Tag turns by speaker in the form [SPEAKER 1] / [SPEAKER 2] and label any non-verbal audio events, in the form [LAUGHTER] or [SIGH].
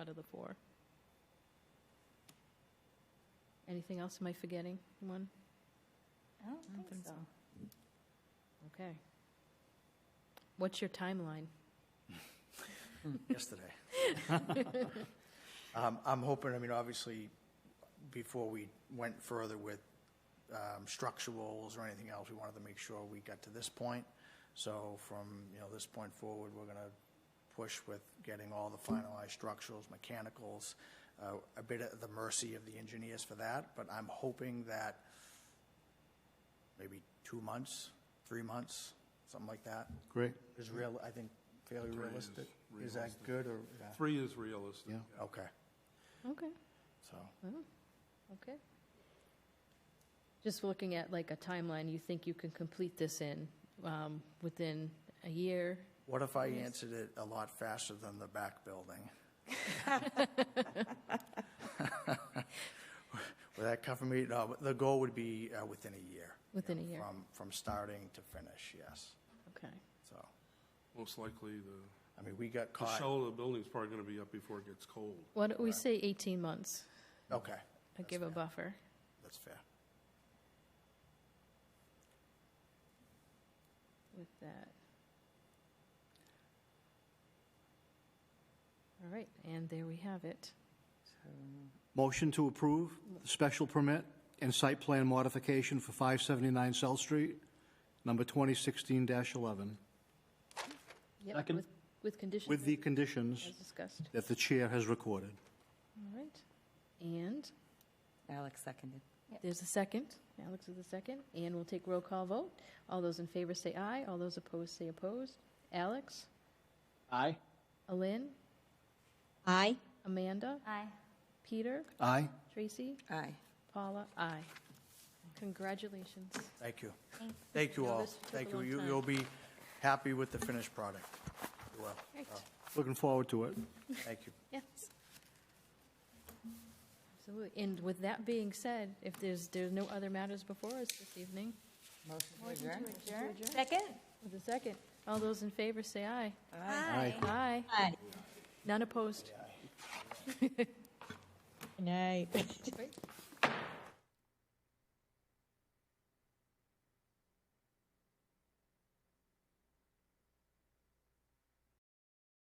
[SPEAKER 1] out of the four. Anything else? Am I forgetting one?
[SPEAKER 2] I
[SPEAKER 3] Mm,
[SPEAKER 2] don't think so.
[SPEAKER 1] Okay. What's your timeline?
[SPEAKER 4] yesterday. [LAUGHS] Um, I'm hoping, I mean, obviously, before we went further with um, structurals or anything else, we wanted to make sure we got to this point. So from, you know, this point forward, we're going to push with getting all the finalized structurals, mechanicals, uh, a bit at the mercy of the engineers for that, but I'm hoping that maybe two months, three months, something like that,
[SPEAKER 5] Great.
[SPEAKER 4] is real, I think fairly
[SPEAKER 6] Three is
[SPEAKER 4] realistic. Is that
[SPEAKER 6] realistic.
[SPEAKER 4] good or? yeah.
[SPEAKER 6] Three is realistic.
[SPEAKER 5] Yeah.
[SPEAKER 6] yeah.
[SPEAKER 4] Okay,
[SPEAKER 1] Okay.
[SPEAKER 4] so,
[SPEAKER 1] Okay. Just looking at like a timeline, you think you can complete this in, um, within a year?
[SPEAKER 4] what if I answered it a lot faster than the
[SPEAKER 1] [LAUGHS]
[SPEAKER 4] back building? [LAUGHS] Would that cover me? No, but the goal would be uh, within a year.
[SPEAKER 1] Within a year.
[SPEAKER 4] From, from starting to finish, yes.
[SPEAKER 1] Okay.
[SPEAKER 4] So,
[SPEAKER 6] Most likely, the,
[SPEAKER 4] I mean, we got
[SPEAKER 6] the
[SPEAKER 4] caught.
[SPEAKER 6] shell of the building's probably gonna be up before it gets cold.
[SPEAKER 1] Why don't we say 18 months?
[SPEAKER 4] Okay,
[SPEAKER 1] I
[SPEAKER 4] That's
[SPEAKER 1] give a
[SPEAKER 4] fair.
[SPEAKER 1] buffer.
[SPEAKER 4] that's fair.
[SPEAKER 1] with that. All right, and there we have it.
[SPEAKER 5] Motion to approve the special permit and site plan modification for 579 South Street, number 2016-11,
[SPEAKER 1] Yep,
[SPEAKER 5] Second.
[SPEAKER 1] with- With conditions.
[SPEAKER 5] with the
[SPEAKER 1] As
[SPEAKER 5] conditions
[SPEAKER 1] discussed.
[SPEAKER 5] that the chair has recorded.
[SPEAKER 1] All right, and
[SPEAKER 3] Alex seconded.
[SPEAKER 1] there's a second. Alex is the second, and we'll take roll call vote. All those in favor say aye, all those opposed say opposed. Alex?
[SPEAKER 5] Aye.
[SPEAKER 1] Alin?
[SPEAKER 3] Aye.
[SPEAKER 1] Amanda?
[SPEAKER 2] Aye.
[SPEAKER 1] Peter?
[SPEAKER 5] Aye.
[SPEAKER 1] Tracy?
[SPEAKER 3] Aye.
[SPEAKER 1] Paula? Aye. Congratulations.
[SPEAKER 4] Thank you. Thank you
[SPEAKER 1] No,
[SPEAKER 4] all.
[SPEAKER 1] this took a
[SPEAKER 4] Thank you.
[SPEAKER 1] long
[SPEAKER 4] You-
[SPEAKER 1] time.
[SPEAKER 4] You'll be happy with the finished product. You will. So,
[SPEAKER 5] Looking forward to it.
[SPEAKER 4] Thank you.
[SPEAKER 1] Yes. Absolutely. And with that being said, if there's, there's no other matters before us this evening,
[SPEAKER 3] Motion to adjourn?
[SPEAKER 2] Second?
[SPEAKER 1] with a second, all those in favor say aye.
[SPEAKER 5] Aye.
[SPEAKER 1] Aye.
[SPEAKER 3] Aye.
[SPEAKER 1] None opposed.
[SPEAKER 3] Good night.